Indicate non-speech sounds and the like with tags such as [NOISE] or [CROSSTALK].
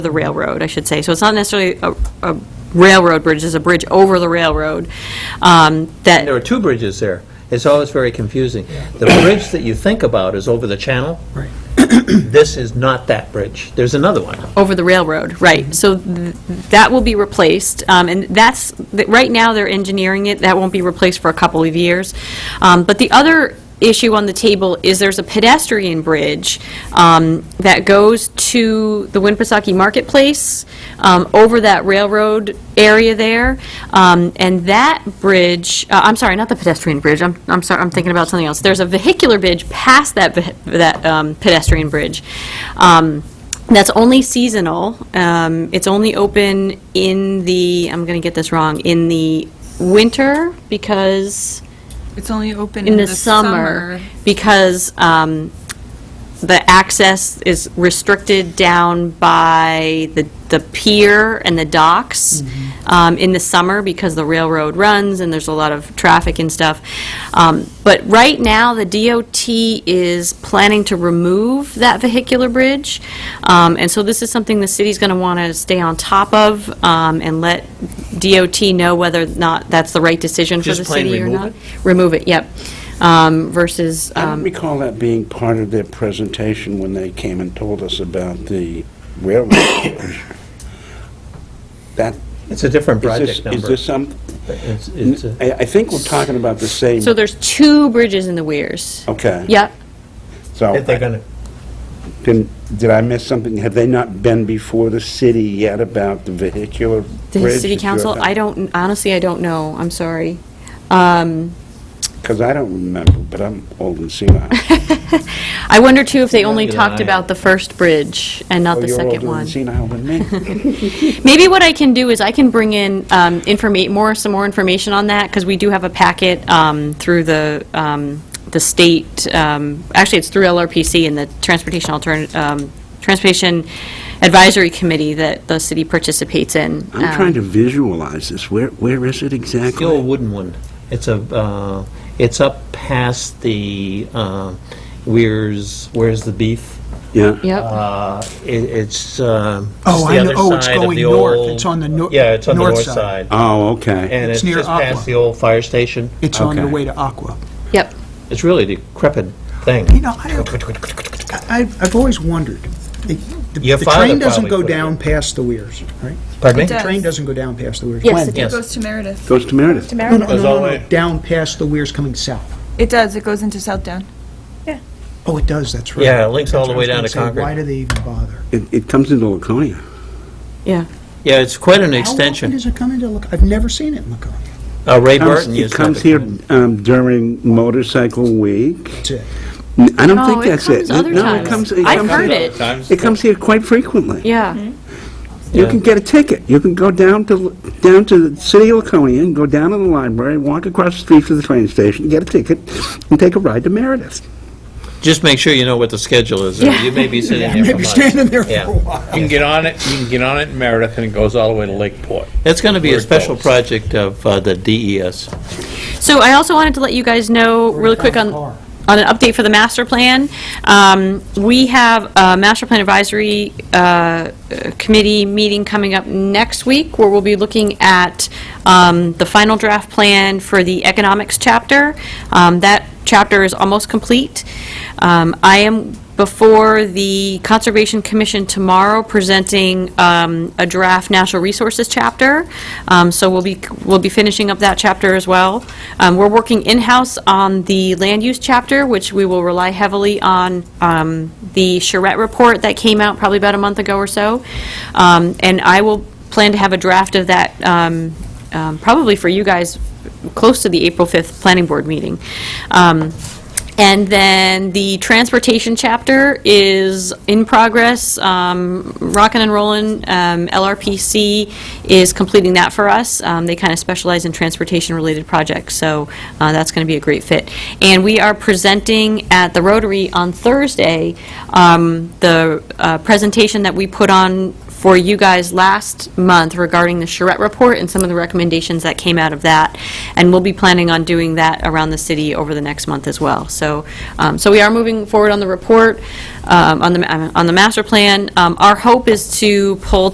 the railroad, I should say. So it's not necessarily a a railroad bridge, it's a bridge over the railroad um, that... There are two bridges there. It's always very confusing. The bridge that you think about is over the channel. Right. [COUGHS] This is not that bridge. There's another one. over the railroad, right. So th- that will be replaced, um, and that's, th- right now, they're engineering it, that won't be replaced for a couple of years. Um, But the other issue on the table is there's a pedestrian bridge um, that goes to the Winnipesaukee Marketplace, um, over that railroad area there, Um, and that bridge, uh, I'm sorry, not the pedestrian bridge, I'm, I'm sorry, I'm thinking about something else. There's a vehicular bridge past that, ve- that um, pedestrian bridge. Um, that's only seasonal. Um, It's only open in the, I'm going to get this wrong, in the winter because, It's only open in the summer, because um, the access is restricted down by the the pier and the docks um, in the summer because the railroad runs and there's a lot of traffic and stuff. Um, But right now, the DOT is planning to remove that vehicular bridge. Um, And so this is something the city's going to want to stay on top of um, and let DOT know whether or not that's the right decision for Just the plain city or remove not. it? Remove it, yep. Um, Versus, I don't um, recall that being part of their presentation when they came and told us about the railroad [COUGHS] bridge. That, It's a different is project this, is number. this some, It's- it's a- I, I think we're talking about the same, so there's two bridges in the Weirs. okay. Yep, So, If they're gonna, didn't- did I miss something? Have they not been before the city yet about the vehicular bridge? the city council, I don't, honestly, I don't know, I'm sorry. Um, Because I don't remember, but I'm old and senile. [LAUGHS] I wonder too if they only Neither talked do I. about the first bridge and not Oh, the second one. You're older and [LAUGHS] senile than me. Maybe what I can do is I can bring in um, informa- more, some more information on that, because we do have a packet um, through the, um, the state, um, actually, it's through LRPC and the Transportation Altern, um, Transportation Advisory Committee that the city participates in. I'm Um, trying to visualize this. Where, where is it the old exactly? wooden one. It's a, uh, it's up past the, uh, where's, where's the beef? Yeah. Yep, Uh, it- It's, uh, Oh, it's I the know. other Oh, it's side of going the north. old- It's on the nor- Yeah, it's on the north north side. side. Oh, okay. And It's it's near just Aqua. past the old fire station. It's on the Okay. way to Aqua. yep. It's really decrepit thing. You know, I, I've, I've always wondered. The, the- Your the father train doesn't probably go put it down in. past the weirs, right? Pardon me? It The does. train doesn't go down past the weirs. Yes, When? it Yes. Goes to Meredith. Goes to Meredith. No, no, no, Goes all the no, way. no, down past the weirs coming south. It does, it goes into Southdown. Oh, it does, that's right. Yeah, it links all That's the what I way was down gonna to say, Concord. Why do they even bother? It, it comes into Laconia. Yeah. Yeah, it's quite an How often extension. does it come into Laconia? I've never seen it in Laconia. Uh, Ray Comes- Burton used It to comes have here it. um, during Motorcycle Week. That's it. N- I don't No, think Oh, it that's it. comes other No, times. it comes, it I've comes heard here- it. It comes here quite frequently. Yeah, You Yeah. can get a ticket. You can go down to, down to the city of Laconia, and go down to the library, walk across the street to the train station, get a ticket, and take a ride to Meredith. Just make sure you know what the schedule is. or Yeah. You may be [LAUGHS] sitting here for Maybe standing months. there for Yeah. a while. You can get on it, you can get on it in Meredith, and it goes all the way to Lakeport. It's going to be Where a it special goes. project of uh, the DES. so I also wanted to let you guys know, really quick on, Car. on an update for the master plan. Um, We have a master plan advisory uh, committee meeting coming up next week, where we'll be looking at um, the final draft plan for the economics chapter. Um, That chapter is almost complete. Um, I am before the Conservation Commission tomorrow, presenting um, a draft natural resources chapter, Um, so we'll be, we'll be finishing up that chapter as well. Um, We're working in-house on the land use chapter, which we will rely heavily on um, the Charette report that came out probably about a month ago or so, Um, and I will plan to have a draft of that um, um, probably for you guys, close to the April 5th Planning Board meeting. Um, and then the transportation chapter is in progress, um, rockin' and rollin'. Um, LRPC is completing that for us. Um, They kind of specialize in transportation-related projects, so uh, that's going to be a great fit. And we are presenting at the Rotary on Thursday, um, the uh, presentation that we put on for you guys last month regarding the charrette report and some of the recommendations that came out of that. And we'll be planning on doing that around the city over the next month as well. So, um, so we are moving forward on the report, um, on the, ma- on the master plan. Um, Our hope is to pull